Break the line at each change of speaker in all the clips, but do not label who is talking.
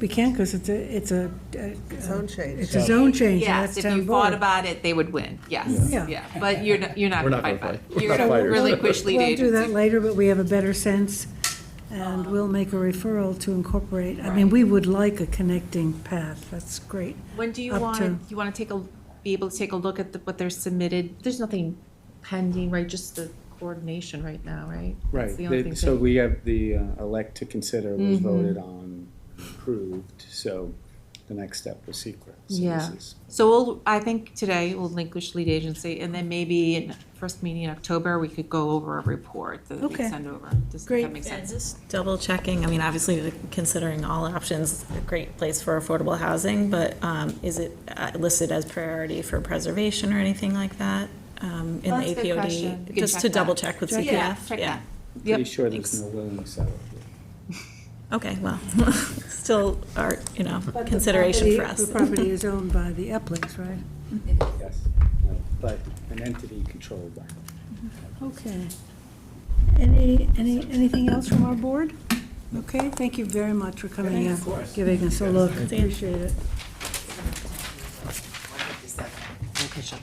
We can't, because it's a, it's a, a-
Zone change.
it's a zone change, and that's
Yes, if
town
you fought
board.
about it, they would win, yes,
Yeah.
yeah, but you're, not- you're not
We're not
gonna fight
gonna
back.
fight. We're
You're
not
gonna
fighters.
relinquish lead
We'll do that
agency.
later, but we have a better sense, and we'll make a referral to incorporate. I mean,
Right.
we would like a connecting path, that's great.
When do you
up
want,
to-
you wanna take a, be able to take a look at the- what they're submitted? There's nothing pending, right, just the coordination right now, right? That's
Right,
the only
the-
thing
so
pending.
we have the uh, elect to consider was
Mm-hmm.
voted on, approved, so the next step was secret.
Yeah. So we'll, I think today we'll relinquish lead agency, and then maybe in first meeting in October, we could go over a report that we
Okay.
send over. Does
Great.
that make
Yeah,
sense?
just double checking, I mean, obviously considering all options, a great place for affordable housing, but um, is it uh, listed as priority for preservation or anything like that um, in
Well,
the
that's a good question.
APOD?
You can
Just
check
to
that.
double check with
Check- yeah,
CPF,
check
yeah.
Pretty
Yep.
sure there's
Thanks.
no willing seller.
Okay, well, still are, you know, consideration
The-
for us.
The property is owned by the Eplings, right?
Yes, no, but an entity controlled by.
Okay. Any, any, anything else from our board? Okay, thank you very much for coming in, giving us a look, appreciate it.
I'll catch up.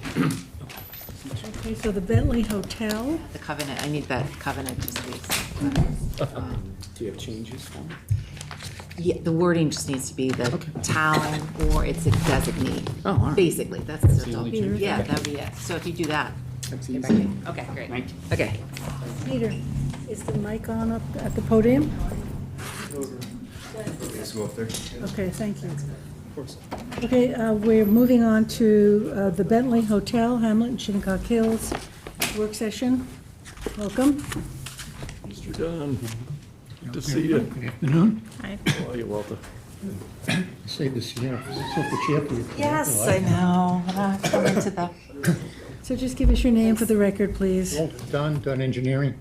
Okay, so the Bentley Hotel,
The covenant, I need that covenant just to be,
Do you have changes for me?
yeah, the wording just needs to be the town or its designee.
Oh, all right.
Basically, that's, that's
the
all.
only change?
Yeah, that'd be it. So if you do that.
That's
if I
easy.
can- Okay, great.
Thank you.
Okay.
Peter, is the mic on up at the podium? Okay, thank you. Okay, uh, we're moving on to uh, the Bentley Hotel, Hamlet and Shinnecock Hills work session. Welcome.
Mr. Dunn, good to see you.
Good afternoon.
Hi.
How are you, Walter?
I Saved this year, so the chair for you.
Yes, I know, I'm gonna come into the
So just give us your name for the record, please.
Walter Dunn, Dunn Engineering.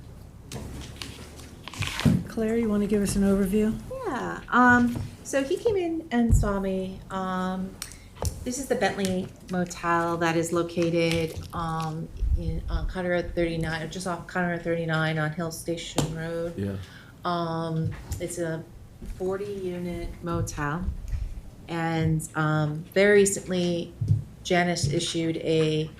Claire, you want to give us an overview?
Yeah. Um, so he came in and saw me. Um, this is the Bentley Motel that is located um, in, on County Road 39, just off County Road 39 on Hill Station Road.
Yeah.
Um, it's a 40 unit motel. And um, very recently, Janice issued a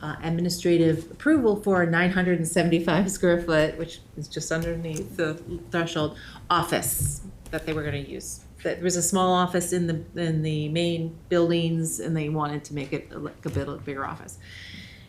uh, administrative approval for a 975 square foot, which is just underneath the threshold, office that they were going to use. That there was a small office in the in the main buildings, and they wanted to make it like a bit of a bigger office.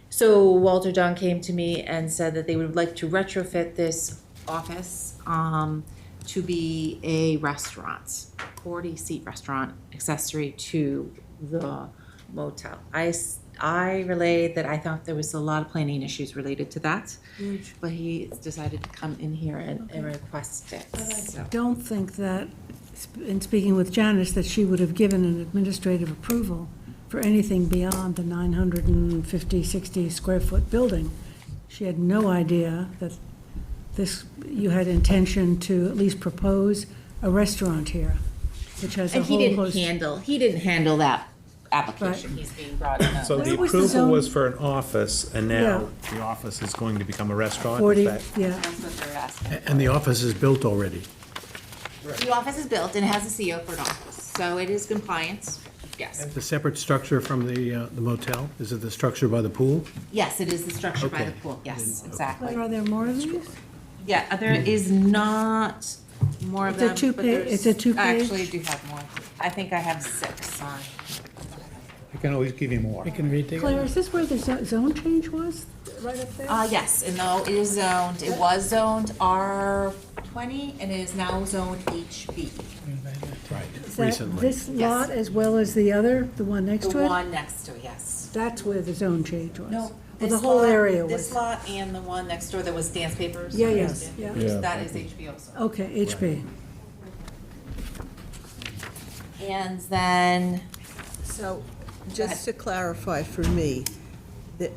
So Walter Don came to me and said that they would like to retrofit this office um, to be a restaurant, forty-seat restaurant accessory to the motel. I, s- I relayed that I thought there was a lot of planning issues related to that, but he decided to come in here and and request it, so.
Don't think that, in speaking with Janice, that she would have given an administrative approval for anything beyond the 950, 60 square foot building. She had no idea that this, you had intention to at least propose a restaurant here, which has a
And he
whole
didn't
host.
handle, he didn't handle that application, he's being brought in.
So the
Where was the zone?
approval was for an office, and now
Yeah.
the office is going to become a restaurant? is
40,
that-
yeah,
That's what they're asking.
And the office is built already.
The office is built and it has a CO for an office, so it is compliant, yes.
The separate structure from the uh, the motel, is it the structure by the pool?
Yes, it is the structure by the
Okay.
pool, yes,
but
exactly.
are there more of these?
Yeah, there is not more of
It's a
them.
two
but
pa-
there's-
it's a two
I
page?
actually do have more. I think I have six on.
I can always give you more. You can read
Claire, is this where the zo- zone change was, right up there?
Uh, yes, and though it is zoned, it was zoned R twenty and it is now zoned HB,
Right.
Is that
Recently.
This lot as well as the other, the one next
the
to it?
one next to it, yes.
That's where the zone change was?
No,
Well, the
this
whole
lot-
area
This
was?
lot and the one next door that was dance papers.
Yeah, yes, yeah.
Yeah.
That is HB also.
Okay, HB.
And then,
So, just to clarify for me, the,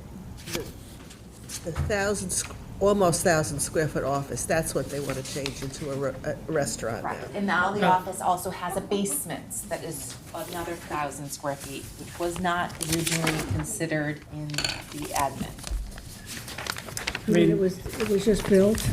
the- the thousand, squ- almost thousand square foot office, that's what they want to change into a re- a restaurant now?
right, and now the office also has a basement that is another thousand square feet, which was not originally considered in the admin.
I mean, it was, it was just built.